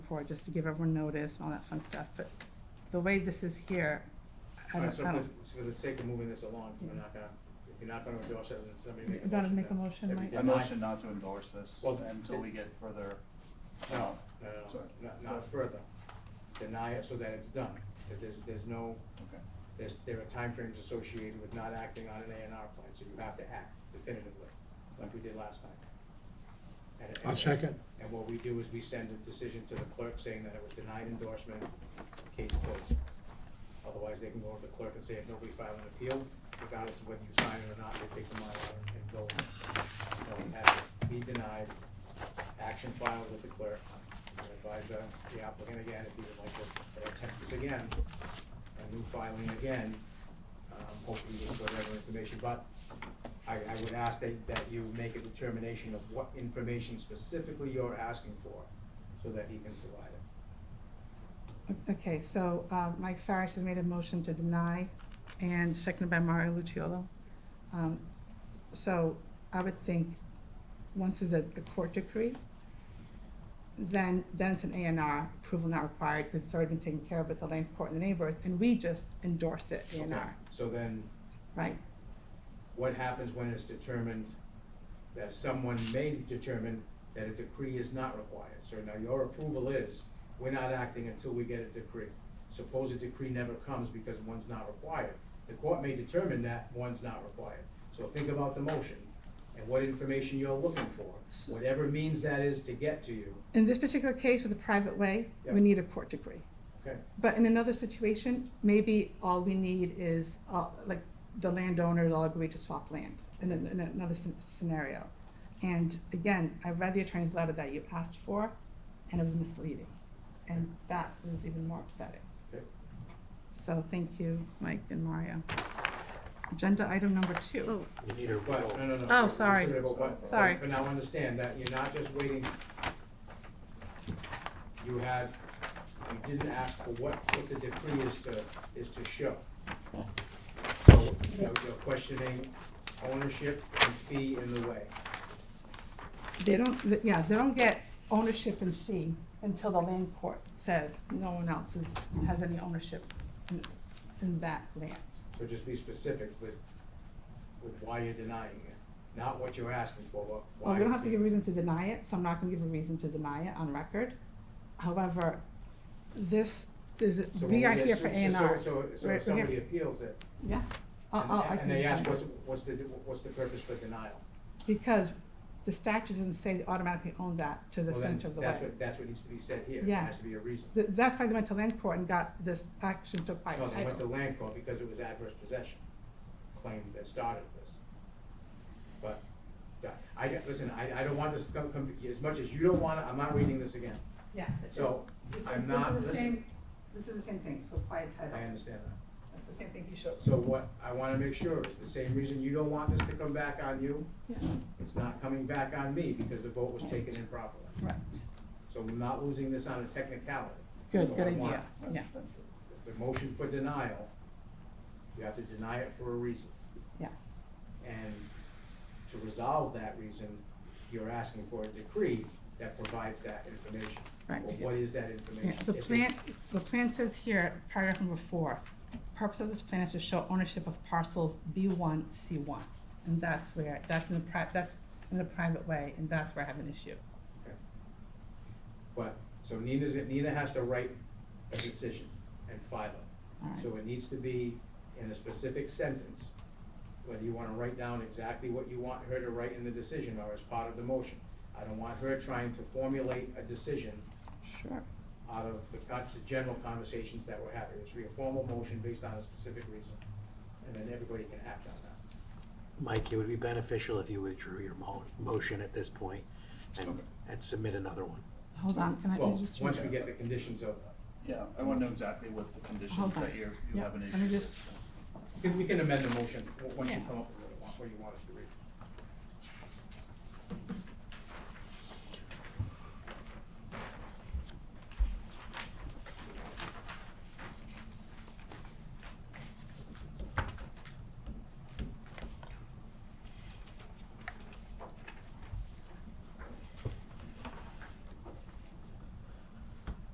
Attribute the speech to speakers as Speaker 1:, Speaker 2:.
Speaker 1: report, just to give everyone notice and all that fun stuff, but the way this is here, I
Speaker 2: Alright,
Speaker 1: don't,
Speaker 2: so
Speaker 1: I
Speaker 2: for,
Speaker 1: don't.
Speaker 2: so for the sake of moving this along, we're not gonna, if you're not gonna endorse it, then somebody make a
Speaker 1: You
Speaker 2: motion.
Speaker 1: gotta make a
Speaker 2: then.
Speaker 1: motion,
Speaker 2: If you
Speaker 1: Mike.
Speaker 2: deny-
Speaker 3: I motion not to endorse this
Speaker 2: Well,
Speaker 3: until we get further.
Speaker 2: No, no, no,
Speaker 3: Sorry.
Speaker 2: no, not, not further. Deny it so that it's done, cause there's, there's no,
Speaker 3: Okay.
Speaker 2: there's, there are timeframes associated with not acting on an A and R plan, so you have to act definitively, like we did last time. And-
Speaker 4: I'll
Speaker 2: and-
Speaker 4: second.
Speaker 2: And what we do is we send a decision to the clerk saying that it was denied endorsement, case closed. Otherwise, they can go to the clerk and say, if nobody filed an appeal, regardless of whether you sign it or not, they take the Mylar and go. So we have it be denied, action filed with the clerk, and advise the the applicant again, if he would like to attempt this again, a new filing again, um, hopefully with whatever information, but I, I would ask that, that you make a determination of what information specifically you're asking for, so that he can provide it.
Speaker 1: Okay, so, uh, Mike Farris has made a motion to deny, and seconded by Mario Luciolo. Um, so, I would think, once there's a a court decree, then, then it's an A and R, approval not required, because it's already been taken care of with the land court and the neighbors, and we just endorse it, A and
Speaker 2: Okay,
Speaker 1: R,
Speaker 2: So then,
Speaker 1: right?
Speaker 2: what happens when it's determined that someone may determine that a decree is not required? So now your approval is, we're not acting until we get a decree. Suppose a decree never comes because one's not required. The court may determine that one's not required. So think about the motion and what information you're looking for, whatever means that is to get to you,
Speaker 1: In this particular case with a private way,
Speaker 2: Yeah.
Speaker 1: we need a court decree.
Speaker 2: okay?
Speaker 1: But in another situation, maybe all we need is, uh, like, the landowners all agree to swap land in, an- in another scen- scenario. And again, I read the attorney's letter that you asked for, and it was misleading. And that was even more upsetting.
Speaker 2: Okay.
Speaker 1: So thank you, Mike and Mario. Agenda item number two.
Speaker 4: You need a
Speaker 2: But, no, no, no.
Speaker 1: Oh, sorry.
Speaker 2: But- but-
Speaker 1: Sorry.
Speaker 2: But now understand that you're not just waiting. You had, you didn't ask for what, what the decree is to, is to show. So you know, you're questioning ownership and fee in the way.
Speaker 1: They don't, th- yeah, they don't get ownership in fee until the land court says no one else is, has any ownership in, in that land.
Speaker 2: So just be specific with, with why you're denying it, not what you're asking for, but why.
Speaker 1: Well, we don't have to give a reason to deny it, so I'm not gonna give a reason to deny it on record. However, this is,
Speaker 2: So when
Speaker 1: we are
Speaker 2: get-
Speaker 1: here for A
Speaker 2: so-
Speaker 1: and
Speaker 2: so-
Speaker 1: Rs.
Speaker 2: So, so if somebody appeals it,
Speaker 1: Yeah, I'll, I'll, I
Speaker 2: and,
Speaker 1: can.
Speaker 2: and they ask,
Speaker 1: defend it.
Speaker 2: what's, what's the, what's the purpose for denial?
Speaker 1: Because the statute doesn't say they automatically own that to the
Speaker 2: Well, then
Speaker 1: center of the
Speaker 2: That's
Speaker 1: way.
Speaker 2: what, that's what needs to be said here. There
Speaker 1: Yeah.
Speaker 2: has to be a reason.
Speaker 1: Th- That's why they went to land court and got this action took by
Speaker 2: No, Oh, they went to
Speaker 1: title.
Speaker 2: land court because it was adverse possession claim that started this. But, yeah, I, listen, I, I don't want this to come, come, as much as you don't want it, I'm not reading this again.
Speaker 1: Yeah.
Speaker 2: So,
Speaker 1: This is,
Speaker 2: I'm
Speaker 1: this
Speaker 2: not,
Speaker 1: is the
Speaker 2: listen,
Speaker 1: same, this is the same thing, so by
Speaker 2: I
Speaker 1: title,
Speaker 2: understand that.
Speaker 1: that's the same thing he showed.
Speaker 2: So what I wanna make sure is the same reason you don't want this to come back on you,
Speaker 1: Yeah,
Speaker 2: it's not coming back on me because the vote was taken improperly.
Speaker 1: right.
Speaker 2: So we're not losing this on a technicality. So
Speaker 1: Good,
Speaker 2: I
Speaker 1: good
Speaker 2: want
Speaker 1: idea, yeah,
Speaker 2: The motion for denial, you have to deny it for a reason.
Speaker 1: yes.
Speaker 2: And to resolve that reason, you're asking for a decree that provides that information.
Speaker 1: Right.
Speaker 2: Well, what is that
Speaker 1: Yeah,
Speaker 2: information?
Speaker 1: the
Speaker 2: If it's-
Speaker 1: plan, the plan says here, paragraph number four, purpose of this plan is to show ownership of parcels B one, C one. And that's where, that's in the pri- that's in the private way, and that's where I have an issue.
Speaker 2: Okay. But, so Nina's, Nina has to write a decision and file
Speaker 1: All
Speaker 2: it.
Speaker 1: right.
Speaker 2: So it needs to be in a specific sentence, whether you wanna write down exactly what you want her to write in the decision or as part of the motion. I don't want her trying to formulate a decision
Speaker 1: Sure.
Speaker 2: out of the con- the general conversations that we're having. It should be a formal motion based on a specific reason, and then everybody can act on that.
Speaker 5: Mike, it would be beneficial if you withdrew your mo- motion at this point and, and submit another one.
Speaker 1: Hold on, can I
Speaker 2: Well,
Speaker 1: just?
Speaker 2: once we get the conditions of,
Speaker 3: Yeah, I wanna know exactly what the conditions
Speaker 1: Hold on.
Speaker 3: that you're, you
Speaker 1: Yeah,
Speaker 3: have an
Speaker 1: let
Speaker 3: issue
Speaker 1: me
Speaker 3: with.
Speaker 1: just-
Speaker 2: we can amend the motion, w- once you
Speaker 1: Yeah.
Speaker 2: come up with what you want, what you want us to read.